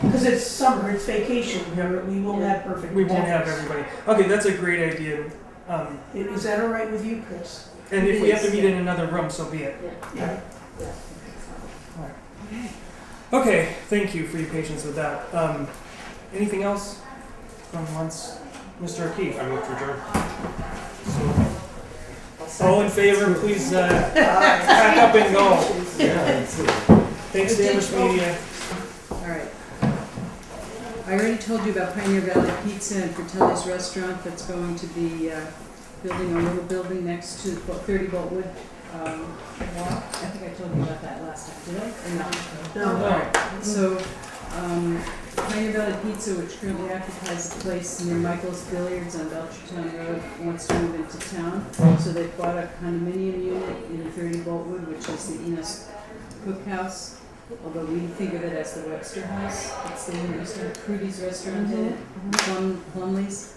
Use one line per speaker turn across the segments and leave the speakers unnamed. Because it's summer, it's vacation, we are- we won't have perfect.
We won't have everybody. Okay, that's a great idea. Um,
attendance. Is that all right with you, Chris?
and if we have to
Please,
meet
yeah.
in another room, so be it.
Yeah.
Okay, thank you for your patience with that. Um, anything else from once, Mr. O'Keefe?
I move to adjourn.
All in favor, please uh, pack up and go. Thanks, Sandwich Media.
Alright. I already told you about Pioneer Valley Pizza and Fratelli's Restaurant that's going to be uh, building a little building next to the thirty Boltwood um, Walk. I think I told you about that last time, did I? Or not?
No.
Alright, so, um, Pioneer Valley Pizza, which currently occupies the place near Michael's Billiards on Belchertown Road, wants to move into town. So they bought a condominium unit in thirty Boltwood, which is the Enos Cookhouse. Although we think of it as the Webster House, it's the new restaurant, Crudy's Restaurant, in it, Plum, Plumley's.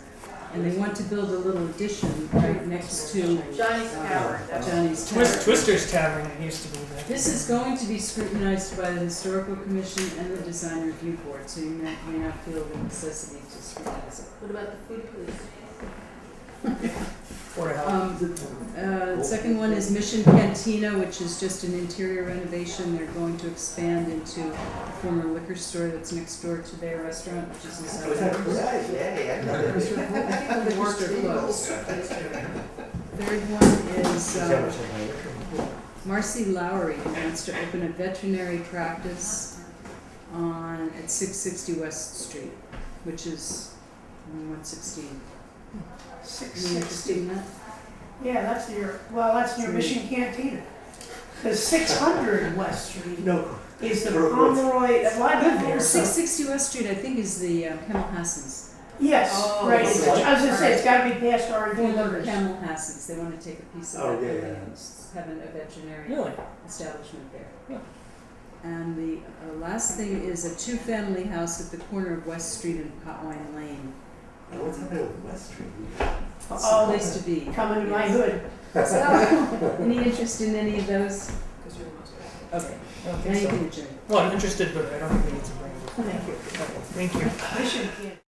And they want to build a little addition right next to
Johnny's
uh,
Tower, that's.
Johnny's Tavern.
Twist, Twister's Tavern it used to be there.
This is going to be scrutinized by the historical commission and the design review board, so you may, may not feel the necessity to scrutinize it.
What about the food police?
Or a house.
Um, the, uh, second one is Mission Cantina, which is just an interior renovation. They're going to expand into the former liquor store that's next door to their restaurant, which is inside. The liquor store closed. Third one is, um, Marcy Lowry who wants to open a veterinary practice on, at six sixty West Street, which is one sixteen.
Six
You interested
sixty.
in that?
Yeah, that's near, well, that's near Mission Cantina. Because six hundred West Street
No.
is the
Throw it.
Pomeroy, well, I live there,
Six
so.
sixty West Street, I think, is the uh, Camel Hassens.
Yes,
Oh,
right,
okay.
I was gonna say, it's gotta be past our
Former
borders.
Camel Hassens, they wanna take a piece of that
Oh, yeah,
building
yeah.
and s- have an- a veterinary
Really?
establishment there.
Yeah.
And the uh, last thing is a two-family house at the corner of West Street and Potwine Lane.
What's happening with West Street?
It's
Oh.
a place to be.
Coming to my hood.
So, any interest in any of those? Okay,
I don't
now
think
you
so.
can adjourn.
Well, I'm interested, but I don't think we need to bring it.
Thank you.
Thank you.
Mission Cantina.